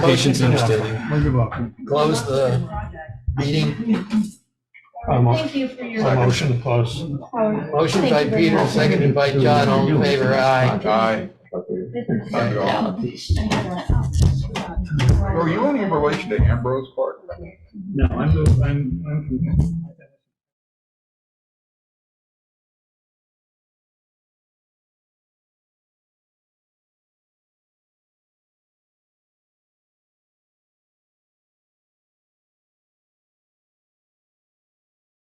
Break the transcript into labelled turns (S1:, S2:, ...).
S1: Patience and understanding.
S2: You're welcome.
S1: Close the meeting.
S2: I'm a-
S3: Thank you for your.
S2: a motion to close.
S1: Motion by
S3: Thank you very
S1: Peter,
S3: much.
S1: seconded by John, all in favor, aye.
S4: Aye.
S3: Were
S4: Were you any relation to Ambrose Clark?
S2: No, I'm, I'm, I'm.